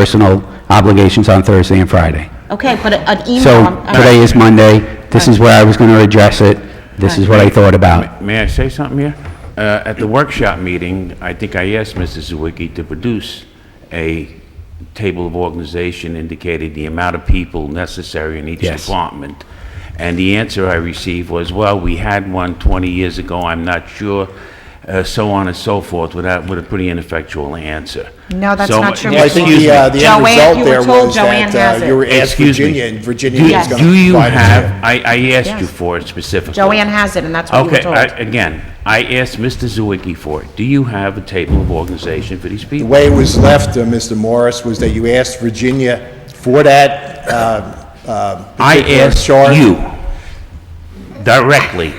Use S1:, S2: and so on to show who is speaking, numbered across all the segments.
S1: personal obligations on Thursday and Friday.
S2: Okay, but an email.
S1: So
S2: I'm- I'm-
S1: today is Monday, this is where I was going to address it, this is what I thought about.
S3: May I say something here? Uh, At the workshop meeting, I think I asked Mrs. Zawicki to produce a table of organization indicating the amount of people necessary in each
S1: Yes.
S3: department. And the answer I received was, well, we had one 20 years ago, I'm not sure, uh, so on and so forth, without, with a pretty ineffectual answer.
S4: No, that's
S3: So,
S4: not true.
S3: yeah,
S5: Well, I think the, uh, the end
S4: Joanne- you
S5: result
S4: were
S5: there
S4: told
S5: was
S4: Joanne has
S5: that uh,
S4: it.
S5: you were asked
S3: Excuse me.
S5: Virginia, and Virginia was
S3: Do
S5: going to.
S3: do you have, I, I asked you for it specifically.
S4: Joanne has it, and that's what you were
S3: Okay,
S4: told.
S3: I- again, I asked Mr. Zawicki for it. Do you have a table of organization for these
S5: The
S3: people?
S5: way it was left, uh, Mr. Morris, was that you asked Virginia for that uh, uh,
S3: I
S5: particular
S3: asked
S5: chart.
S3: you directly,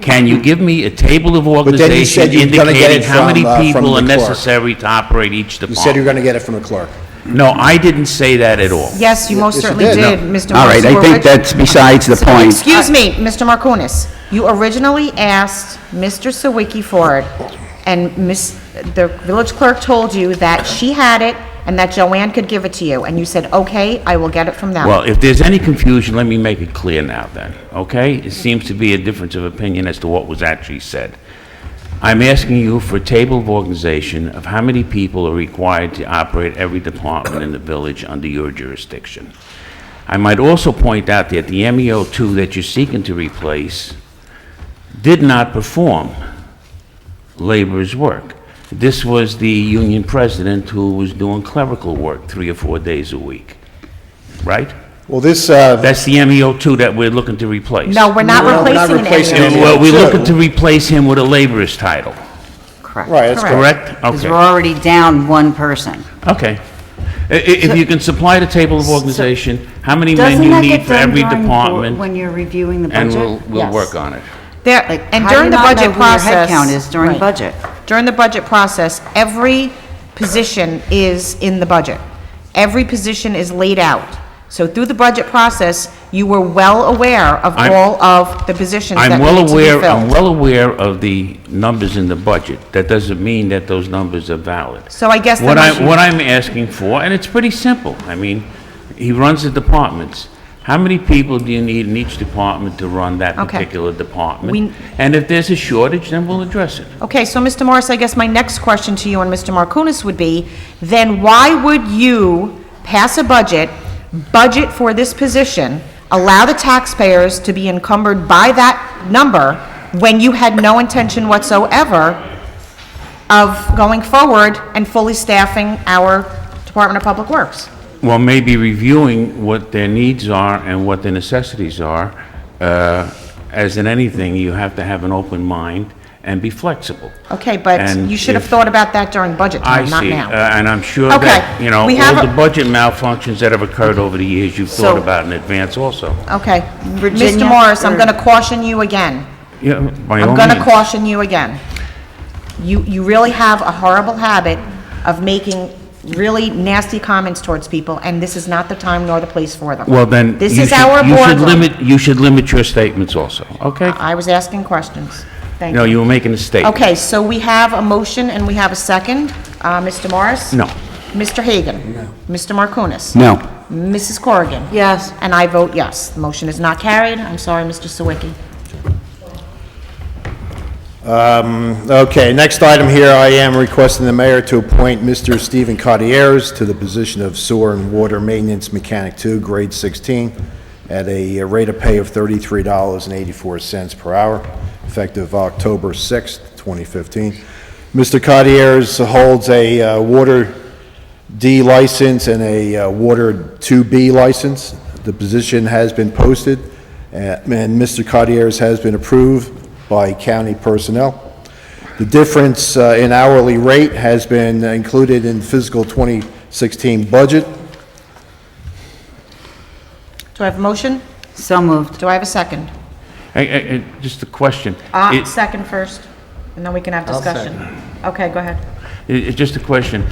S3: can you give me a table of
S5: then you
S3: organization
S5: said you were gonna get
S3: indicating
S5: it
S3: how many
S5: from, uh, from
S3: people
S5: the
S3: are
S5: clerk.
S3: necessary to operate each
S5: You said you were
S3: department?
S5: going to get it from the clerk.
S3: No, I didn't say that at all.
S4: Yes, you most
S5: Yes, you
S4: certainly
S5: did.
S4: did, Mr. Morris.
S1: All right,
S4: You
S1: I
S4: were
S1: think
S4: orig-
S1: that's besides the point.
S4: Excuse me, Mr. Markounis, you originally asked Mr. Sawicki for it, and Miss, the village clerk told you that she had it and that Joanne could give it to you, and you said, "Okay, I will get it from them."
S3: Well, if there's any confusion, let me make it clear now then, okay? It seems to be a difference of opinion as to what was actually said. I'm asking you for a table of organization of how many people are required to operate every department in the village under your jurisdiction. I might also point out that the MEO 2 that you're seeking to replace did not perform laborer's work. This was the union president who was doing clerical work three or four days a week, right?
S5: Well, this, uh,
S3: That's the MEO two that we're looking to replace.
S4: No, we're not
S5: No, we're not
S4: replacing it
S5: replacing
S3: And
S4: anymore.
S3: we're, we're
S5: MEO2.
S3: looking to replace him with a laborer's title,
S6: Correct.
S5: right, that's
S4: Correct.
S5: correct.
S3: correct?
S6: Because we're
S3: Okay,
S6: already down one person.
S3: okay. I- i- If you can supply the table of organization, how many men
S6: Doesn't
S3: you
S6: that
S3: need
S6: get
S3: for
S6: done
S3: every
S6: during board-
S3: department,
S6: when you're reviewing the budget?
S3: and we'll, we'll work on it.
S4: There,
S6: Like,
S4: and
S6: how do
S4: during
S6: you
S4: the
S6: not know
S4: budget
S6: who your
S4: process.
S6: headcount is during
S4: Right.
S6: budget?
S4: During the budget process, every position is in the budget. Every position is laid out. So through the budget process, you were well aware of
S3: I'm-
S4: all of the positions that
S3: I'm
S4: needed to
S3: well
S4: be
S3: aware, I'm
S4: filled.
S3: well aware of the numbers in the budget. That doesn't mean that those numbers are valid.
S4: So I guess the
S3: What I,
S4: motion-
S3: what I'm asking for, and it's pretty simple, I mean, he runs the departments. How many people do you need in each department to run that
S4: Okay.
S3: particular
S4: We-
S3: department? And if there's a shortage, then we'll address it.
S4: Okay, so Mr. Morris, I guess my next question to you and Mr. Markounis would be, then why would you pass a budget, budget for this position, allow the taxpayers to be encumbered by that number when you had no intention whatsoever of going forward and fully staffing our Department of Public Works?
S3: Well, maybe reviewing what their needs are and what their necessities are. Uh, As in anything, you have to have an open mind and be flexible.
S4: Okay, but
S3: And
S4: you should have
S3: if-
S4: thought about that during budget
S3: I
S4: time, not
S3: see,
S4: now.
S3: Uh, and I'm sure
S4: Okay,
S3: that, you know, all
S4: we have a-
S3: the budget malfunctions that have occurred over the years, you've thought
S4: So-
S3: about in advance also.
S4: Okay,
S6: Virginia,
S4: Mr. Morris, I'm
S6: or-
S4: going to caution you again.
S3: Yeah, by all
S4: I'm going to
S3: means.
S4: caution you again. You, you really have a horrible habit of making really nasty comments towards people, and this is not the time nor the place for them.
S3: Well, then, you
S4: This
S3: should,
S4: is our
S3: you should
S4: boardroom.
S3: limit, you should limit your statements also, okay?
S4: I was asking questions. Thank
S3: No,
S4: you.
S3: you were making a statement.
S4: Okay, so we have a motion and we have a second. Uh, Mr. Morris?
S3: No.
S4: Mr. Hagan? No. Mr. Markounis?
S1: No,
S4: Mrs. Corrigan?
S6: Yes.
S4: And I vote yes. The motion is not carried. I'm sorry, Mr. Sawicki.
S5: Okay, next item here, I am requesting the mayor to appoint Mr. Stephen Cartieres to the position of sewer and water maintenance mechanic two, grade 16, at a rate of pay of $33.84 per hour, effective October 6th, 2015. Mr. Cartieres holds a uh, water D license and a uh, Water 2B license. The position has been posted, uh, and Mr. Cartier's has been approved by county personnel. The difference uh, in hourly rate has been included in fiscal 2016 budget.
S4: Do I have a motion?
S6: So moved.
S4: Do I have a second?
S3: Hey, hey, hey, just a question.
S4: Uh,
S3: It-
S4: second first, and then we can have discussion. Okay, go ahead.
S3: it- It's just a question.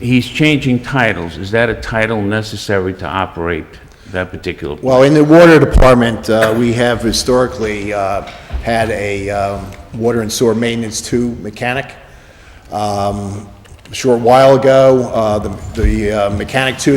S3: He's changing titles. Is that a title necessary to operate that particular?
S5: Well, in the water department, uh, we have historically uh, had a um, water and sewer maintenance two mechanic. Um, a short while ago. Uh, The the, uh, mechanic two